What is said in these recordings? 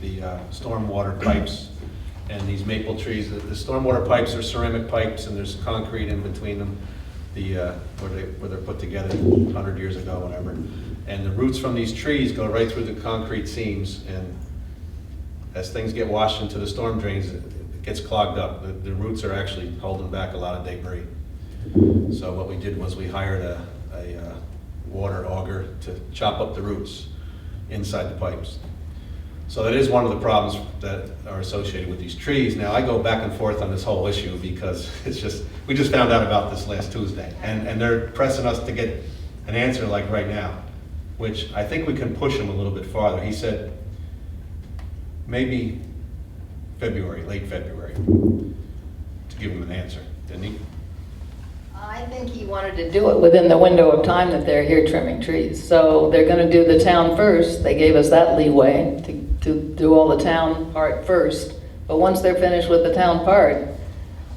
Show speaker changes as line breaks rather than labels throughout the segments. the uh, stormwater pipes and these maple trees. The the stormwater pipes are ceramic pipes, and there's concrete in between them, the, uh, where they, where they're put together 100 years ago, whatever. And the roots from these trees go right through the concrete seams, and as things get washed into the storm drains, it- it gets clogged up. The- The roots are actually holding back a lot of debris. So what we did was we hired a, a uh, water auger to chop up the roots inside the pipes. So that is one of the problems that are associated with these trees. Now, I go back and forth on this whole issue because it's just, we just found out about this last Tuesday. And, and they're pressing us to get an answer like right now, which I think we can push him a little bit farther. He said maybe February, late February, to give him an answer, didn't he?
I think he wanted to do it within the window of time that they're here trimming trees. So they're going to do the town first. They gave us that leeway to, to do all the town part first. But once they're finished with the town part,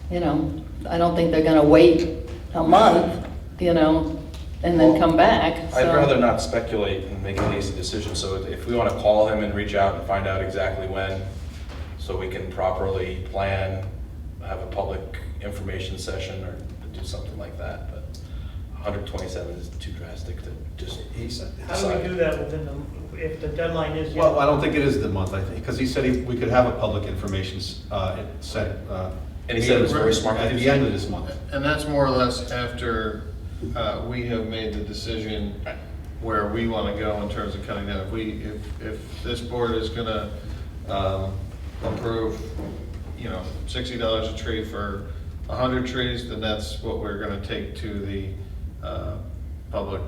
you know, I don't think they're going to wait a month, you know, and then come back.
I'd
so-
rather not speculate and make a hasty decision, so if- if we want to call him and reach out and find out exactly when, so we can properly plan, have a public information session or do something like that, but 127 is too drastic to just
He said.
How do we do that within the, if the deadline is?
Well, I don't think it is the month, I think, because he said he- we could have a public information s- uh, set. uh,
And he said it was very smart.
At the end of this month.
And that's more or less after uh, we have made the decision where we want to go in terms of cutting down. If we, if, if this board is going to approve, you know, sixty dollars a tree for a hundred trees, then that's what we're going to take to the uh, public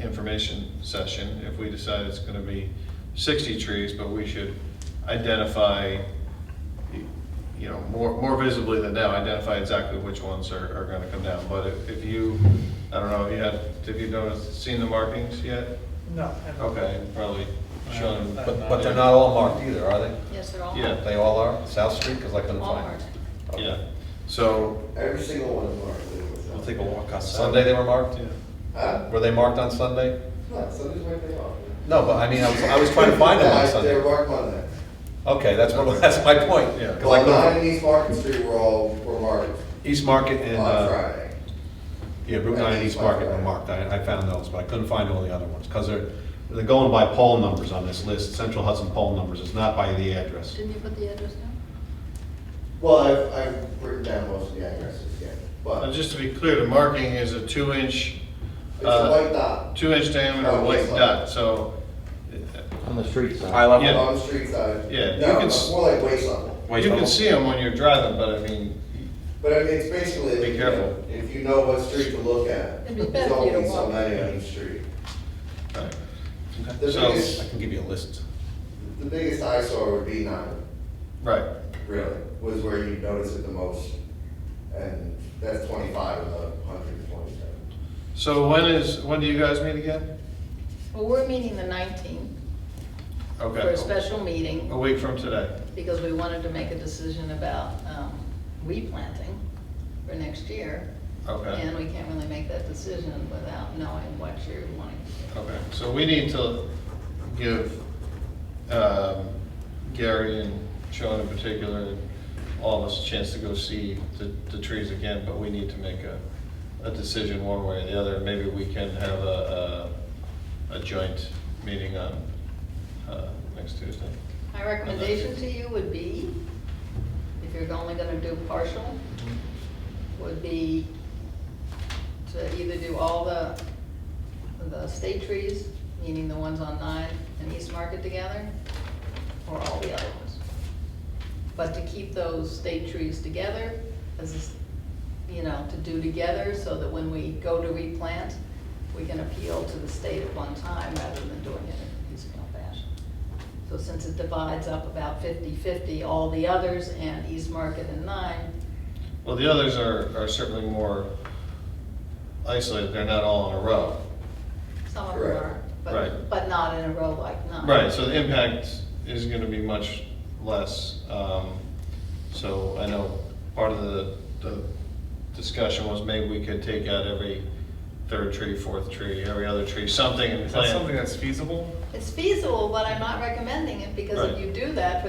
information session. If we decide it's going to be sixty trees, but we should identify you know, more, more visibly than now, identify exactly which ones are, are gonna come down. But if, if you, I don't know, have you had, have you noticed, seen the markings yet?
No. I
Oh,
don't.
Okay, probably shown.
But but they're not all marked either, are they?
Yes, they're all.
Yeah.
They all are? South Street, because I couldn't
All
find
marked.
it. Okay.
Yeah, so,
Every single one of them are.
We'll take a walk outside.
Sunday they were marked?
yeah,
Huh?
Were they marked on Sunday?
No, Sunday's my day off.
No, but I mean, I was, I was trying to find them on
Yeah, They're
Sunday.
marked Monday.
Okay, that's what, that's my point.
Yeah.
'Cause I
Well, nine
couldn't-
in East Market Street were all, were marked
East Market and,
on
uh,
Friday.
yeah, Route 9 and East Market were marked. I, I found those, but I couldn't find all the other ones, because they're, they're going by poll numbers on this list, Central Hudson poll numbers. It's not by the address.
Didn't you put the address down?
Well, I've, I've written down most of the addresses, yeah, but
and
it's
just to be clear, the marking is a two-inch,
a
uh,
white dot
two-inch diameter
Oh,
white
it's like-
dot, so,
On the street side.
Eye level?
on the street side.
Yeah, you
No,
can
it's
s-
more like waist level.
you
Wait,
can
level?
see them when you're driving, but I mean,
But I mean, it's basically.
Be careful.
If you know what street to look at,
It'd be
there's
better if you don't
only so
walk.
many on each street.
right.
The
So-
biggest,
I can give you a list.
the biggest eyesore would be nine.
right.
really, was where you notice it the most. And that's twenty-five of the hundred and twenty-seven.
So when is, when do you guys meet again?
Well, we're meeting the 19th for
Okay,
a special meeting
a week from today.
because we wanted to make a decision about um, weed planting for next year.
Okay.
And we can't really make that decision without knowing what you're wanting to
Okay, so we need to give um, Gary and Sean in particular, and all of us a chance to go see the, the trees again, but we need to make a, a decision one way or the other. Maybe we can have a, a a joint meeting on uh, next Tuesday.
do. My recommendation to you would be, if you're only gonna do partial, would be to either do all the, the state trees, meaning the ones on nine and East Market together, or all the other ones. But to keep those state trees together, as, is- you know, to do together, so that when we go to replant, we can appeal to the state at one time rather than doing it in a piecemeal fashion. So since it divides up about 50-50, all the others and East Market and nine,
Well, the others are, are certainly more isolated, they're not all in a row.
some of them
Correct.
are, but,
Right.
but not in a row like nine.
Right, so the impact is gonna be much less. um, So I know part of the, the discussion was maybe we could take out every third tree, fourth tree, every other tree, something and
Is that something
plant.
that's feasible?
It's feasible, but I'm not recommending it, because
Right.
if you do that for